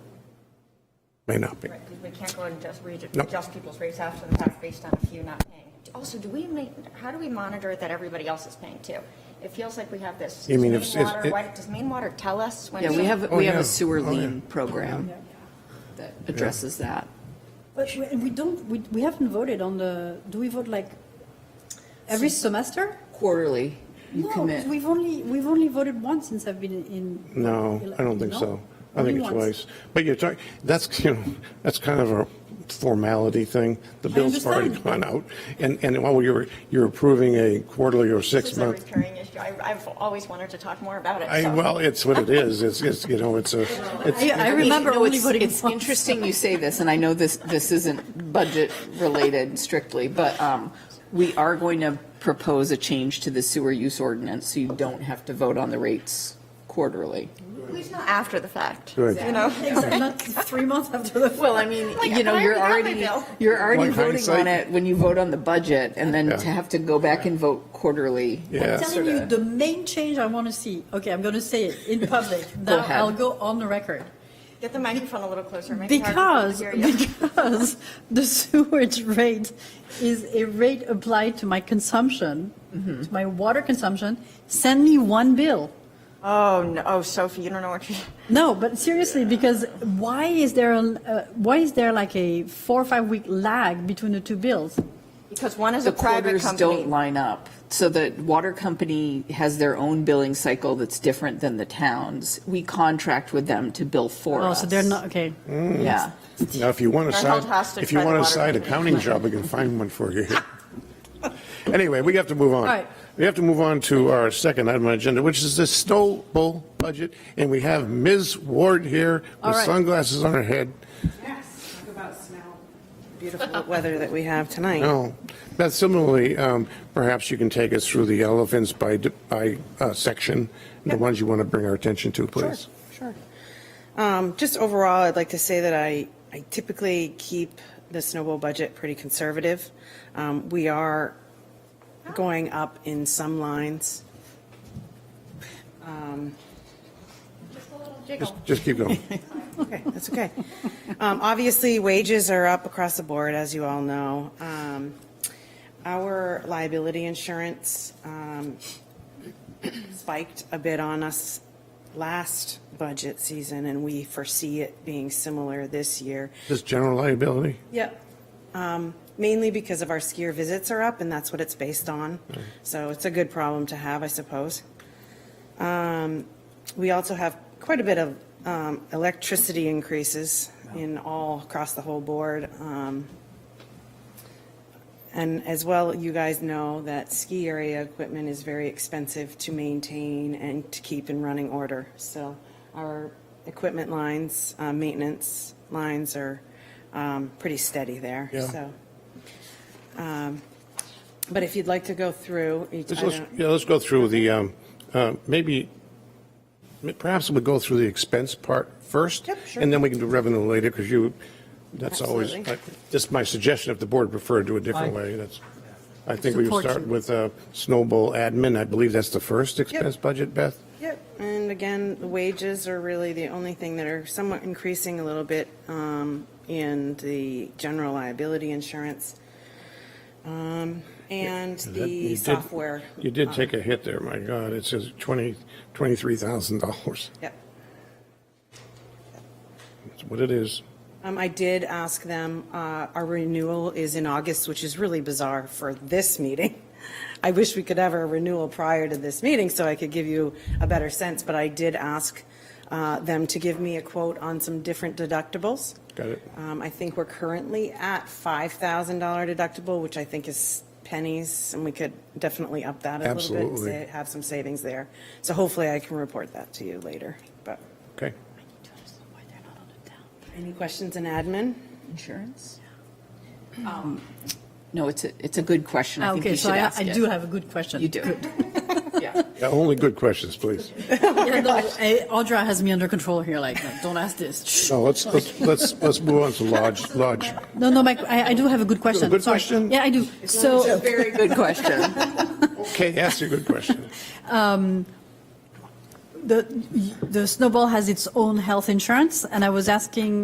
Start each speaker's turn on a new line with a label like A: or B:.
A: may not be.
B: Right, because we can't go and just read,
A: No.
B: adjust people's rates after the fact based on a few not paying. Also, do we make, how do we monitor that everybody else is paying too? It feels like we have this.
A: You mean if-
B: Does
A: if-
B: Maine Water-
A: it-
B: why- Does Maine Water tell us when?
C: Yeah, we have,
A: Oh,
C: we have
A: yeah.
C: a sewer
A: Oh,
C: lien
A: yeah.
C: program that addresses that.
D: But we- and we don't, we, we haven't voted on the, do we vote like every semester?
C: Quarterly, you
D: No,
C: commit.
D: We've only, we've only voted once since I've been in.
A: No, I don't think
D: No?
A: so. I think
D: Only
A: it's
D: once.
A: twice. But you're talking, that's, you know, that's kind of a formality thing. The bill's already
D: understand.
A: gone out. And, and while you're, you're approving a quarterly or
B: This is a
A: six-month,
B: recurring issue. I, I've always wanted to talk more about it.
A: I,
B: so-
A: well, it's what it is. It's, it's, you know, it's a, it's,
D: I, I
C: You
D: remember
C: know,
D: only
C: it's-
D: voting
C: It's
D: once.
C: interesting you say this, and I know this, this isn't budget-related strictly, but um, we are going to propose a change to the sewer use ordinance, so you don't have to vote on the rates quarterly.
B: At least not after the fact, you
A: Good.
B: know?
D: Exactly, not three months after the.
C: Well, I mean,
B: Like,
C: you know,
B: I
C: you're
B: already
C: already,
B: got my bill.
C: you're already
A: Like
C: voting
A: hindsight.
C: on it when you vote on the budget, and then
A: Yeah.
C: to have to go back and vote quarterly.
D: I'm
A: yeah.
D: telling you, the main change I want to see, okay, I'm going to say it in public.
C: Go
D: Now
C: ahead.
D: I'll go on the record.
B: Get the microphone a little closer. Make it harder for
D: Because,
B: people to hear you.
D: because the sewage rate is a rate applied to my consumption,
C: Mm-hmm.
D: to my water consumption, send me one bill.
B: Oh, no, oh, Sophie, you don't know what you,
D: No, but seriously, because why is there, uh, why is there like a four or five week lag between the two bills?
B: because one is
C: The
B: a private
C: quarters don't
B: company.
C: line up. So the water company has their own billing cycle that's different than the town's. We contract with them to bill for
D: Oh,
C: us.
D: so they're not, okay.
C: Yeah.
A: Now, if you want a
B: They're held
A: side,
B: hostage
A: if you
B: by the
A: want a
B: water
A: side
B: company.
A: accounting job, I can find one for you. Anyway, we have to move on.
D: All right.
A: We have to move on to our second item on agenda, which is the Stoll budget. And we have Ms. Ward here
D: All
A: with
D: right.
A: sunglasses on her head.
E: Yes, talk about snow. Beautiful weather that we have tonight.
A: No. But similarly, um, perhaps you can take us through the elephants by, d- by uh, section, the ones you want to bring our attention to, please.
E: Sure. Um, Just overall, I'd like to say that I I typically keep the snowball budget pretty conservative. Um, We are going up in some lines.
A: Just, just keep going.
E: Okay, that's okay. Um, Obviously, wages are up across the board, as you all know. Um, Our liability insurance um, spiked a bit on us last budget season, and we foresee it being similar this year.
A: Just general liability.
E: Yep. Um, Mainly because of our skier visits are up, and that's what it's based on. So it's a good problem to have, I suppose. Um, We also have quite a bit of um, electricity increases in all, across the whole board. Um, And as well, you guys know that ski area equipment is very expensive to maintain and to keep in running order. So our equipment lines, uh, maintenance lines are um, pretty steady there,
A: Yeah.
E: so. um, But if you'd like to go through, each
A: Let's,
E: item.
A: let's, yeah, let's go through the, um, uh, maybe, perhaps we'll go through the expense part first.
E: Yep, sure.
A: And then we can do revenue later, because you, that's always,
E: Absolutely.
A: just my suggestion, if the board preferred to a different way, that's, I think we would
D: Support
A: start
D: you.
A: with uh, snowball admin, I believe that's the first expense budget, Beth?
E: Yep, and again, the wages are really the only thing that are somewhat increasing a little bit um, in the general liability insurance. Um, And
A: That- you
E: the
A: did-
E: software. um,
A: You did take a hit there, my God, it says 20, $23,000,
E: Yep.
A: that's what it is.
E: Um, I did ask them, uh, our renewal is in August, which is really bizarre for this meeting. I wish we could have a renewal prior to this meeting so I could give you a better sense, but I did ask uh, them to give me a quote on some different deductibles.
A: Got it.
E: Um, I think we're currently at $5,000 deductible, which I think is pennies, and we could definitely up that a little bit.
A: Absolutely.
E: sa- Have some savings there. So hopefully I can report that to you later, but.
A: Okay,
E: Any questions in admin?
C: Insurance? No, it's a, it's a good question. I think
D: Um, Ah, Okay,
C: you
D: so
C: should
D: I,
C: ask
D: I
C: it.
D: do have a good question.
C: You do. Yeah.
A: Yeah, only good questions, please.
D: Yeah, no, eh, Audra has me under control here, like, no, don't ask this. Shh.
A: No, let's, let's, let's let's move on to lodge, lodge.
D: No, no, Mike, I, I do have a good question.
A: good
D: Sorry.
A: question?
D: Yeah, I do.
C: A
D: So,
C: very good question.
A: Okay, ask your good question.
D: the, the snowball has its own health insurance, and I was asking